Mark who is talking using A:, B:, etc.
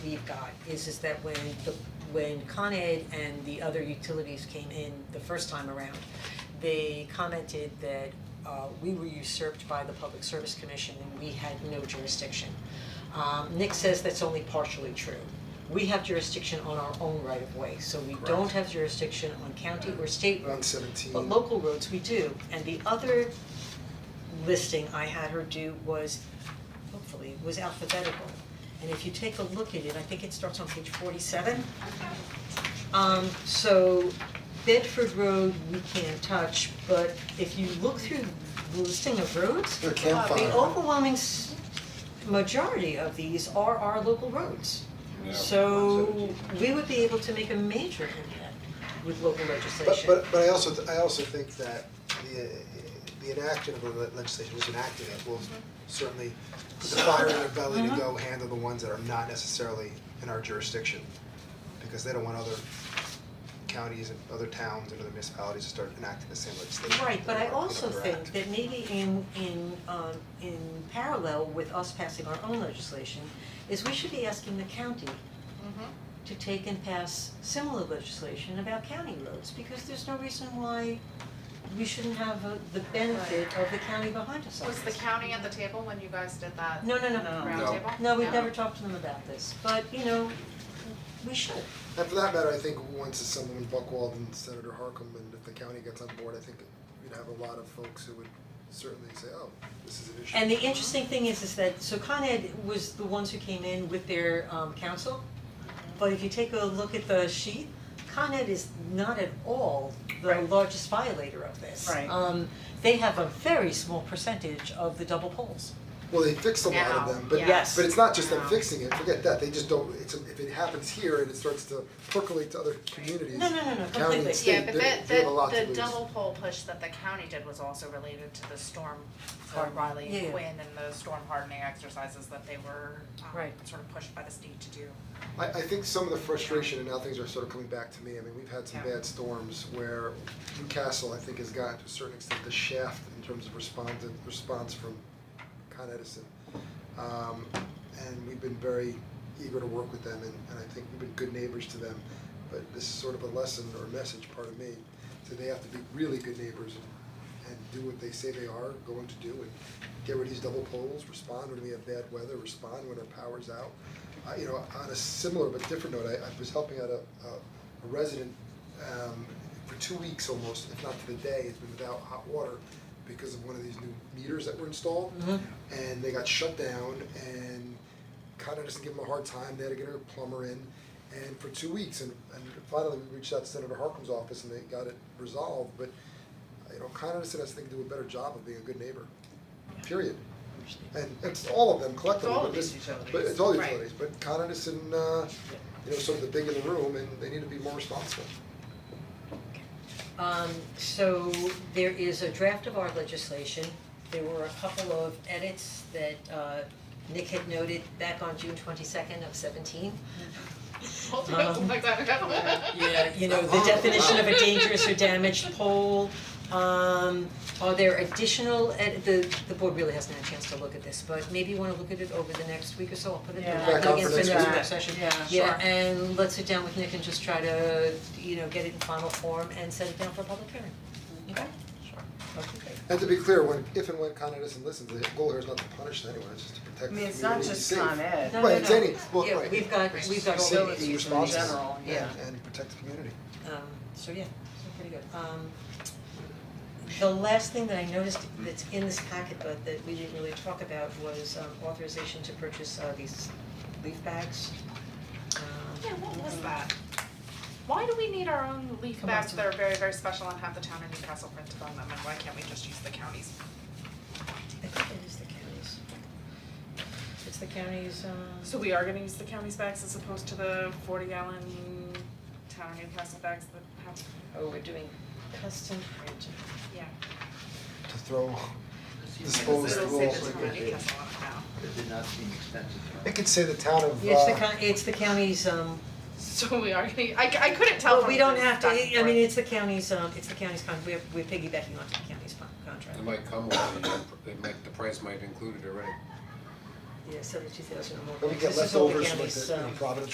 A: we've got is is that when the when Con Ed and the other utilities came in the first time around, they commented that uh we were usurped by the Public Service Commission and we had no jurisdiction. Um Nick says that's only partially true. We have jurisdiction on our own right of way, so we don't
B: Correct.
A: have jurisdiction on county or state
B: Around
A: roads.
B: seventeen.
A: But local roads, we do, and the other listing I had her do was, hopefully, was alphabetical. And if you take a look at it, I think it starts on page forty-seven. Um, so Bedford Road, we can't touch, but if you look through the listing of roads,
B: They're campfire.
A: the overwhelming s- majority of these are our local roads. So we would be able to make a major impact with local
B: But
A: legislation.
B: but but I also, th- I also think that the uh, the enactment of the le- legislation, who's enacting it, will
A: Mm-hmm.
B: certainly put the fire in their belly to go handle the ones that are not necessarily in our jurisdiction. Because they don't want other counties and other towns and other municipalities to start enacting the same legislation.
A: Right, but
B: that
A: I
B: we're-
A: also
B: we're
A: think
B: acting.
A: that maybe in in um in parallel with us passing our own legislation, is we should be asking the county
B: Mm-hmm.
A: to take and pass similar legislation about county roads, because there's no reason why we shouldn't have uh, the benefit of the county behind us on
C: Was the
A: this.
C: county at the table when you guys did that
A: No, no, no, no, no,
C: roundtable?
D: No.
A: no, we've never talked to them about this, but you know, we should.
B: And for that matter, I think once it's someone Buckwald and Senator Harkam, and if the county gets on board, I think we'd have a lot of folks who would certainly say, oh, this is an issue.
A: And the interesting thing is, is that, so Con Ed was the ones who came in with their um council, but if you take a look at the sheet, Con Ed is not at all the
E: Right.
A: largest violator of this.
E: Right.
A: Um, they have a very small percentage of the double poles.
B: Well, they fixed a lot of
C: Now,
B: them, but
E: Yes.
B: but it's not just them
C: Now.
B: fixing it, forget that, they just don't, it's, if it happens here and it starts to percolate to other communities,
A: No, no, no, no, completely.
B: county and
C: Yeah,
B: state,
C: but
B: they
C: that
B: they have a lot to
C: that the
B: lose.
C: double pole push that the county did was also related to the storm for
A: Hardening.
C: Riley
A: Yeah, yeah.
C: and Quinn and the storm hardening exercises that they were um,
A: Right.
C: sort of pushed by the state to do.
B: I I think some of the frustration and now things are sort of coming back to me, I mean, we've had some
C: Yeah.
B: bad storms where Newcastle, I think, has gotten to a certain extent the shaft in terms of respondent, response from Con Edison. Um and we've been very eager to work with them and and I think we've been good neighbors to them, but this is sort of a lesson or a message, pardon me, that they have to be really good neighbors and and do what they say they are going to do and get rid of these double poles, respond when we have bad weather, respond when our power's out. I you know, on a similar but different note, I I was helping out a a a resident um for two weeks almost, if not to the day, has been without hot water because of one of these new meters that were installed and they got shut down and kind of just give them a hard time. They had to get a plumber in, and for two weeks, and, and finally we reached out to Senator Harkin's office and they got it resolved. But you know, kind of just has to do a better job of being a good neighbor. Period. And it's all of them collectively,
E: It's all
B: but
E: of
B: this,
E: these
B: but
E: utilities.
B: it's all
C: Right.
B: utilities, but Con Edison, uh, you know, sort of the big in the room, and they need to be more responsible.
A: Um, so there is a draft of our legislation. There were a couple of edits that uh Nick had noted back on June twenty-second of seventeen. Um, Yeah, you know, the definition of a dangerous or damaged pole, um, are there additional, ed- the, the board really hasn't had a chance to look at this, but maybe you wanna look at it over the next week or so, I'll put it in
E: Yeah.
A: the
B: Back up
A: against
B: for
A: the
B: next
A: next
B: week.
A: work session.
E: Yeah,
A: Yeah,
E: sure.
A: and let's sit down with Nick and just try to, you know, get it in final form and set it down for public hearing,
B: Mm-hmm.
A: okay? Sure. Okay, great.
B: And to be clear, when, if and when Con Edison listens, the goal here is not to punish anyone, it's just to protect the
E: I mean,
B: community
E: it's not
B: and be
E: just
B: safe.
E: Con Ed.
A: No,
B: Right,
A: no,
B: it's
A: no.
B: any- well,
A: Yeah,
B: right.
A: we've got, we've got all
E: Facilities
A: those.
E: in
B: responsible.
E: general, yeah.
B: And and protect the community.
A: Um, so yeah, so pretty good. Um, the last thing that I noticed that's in this packet, but that we didn't really talk about was um, authorization to purchase uh, these leaf bags. Um,
C: Yeah, what was that? Why do we need our own leaf bags that are very, very special and have the town of Newcastle printed on them, and why can't we just use the county's?
A: I think it is the county's. It's the county's, um.
C: So we are gonna use the county's bags as opposed to the forty gallon town of Newcastle bags that have,
A: Oh, we're doing custom printing.
C: yeah.
B: to throw disposed
C: It'll say the
B: rules.
C: town of Newcastle on it now.
D: It did not seem expensive at all.
B: It could say the town of,
A: It's the
B: uh,
A: coun, it's the county's, um,
C: So we are gonna, I, I couldn't tell
A: well,
C: from
A: we don't
C: this
A: have to,
C: back and
A: I mean,
C: forth.
A: it's the county's, um, it's the county's con, we're, we're piggybacking onto the county's con- contract.
F: It might come with, it, it might, the price might have included already.
A: yeah, seventy-two thousand or more.
B: When we
A: votes.
B: get
A: This is all the
B: leftovers, like
A: counties,
B: the you know,
A: um,
B: Providence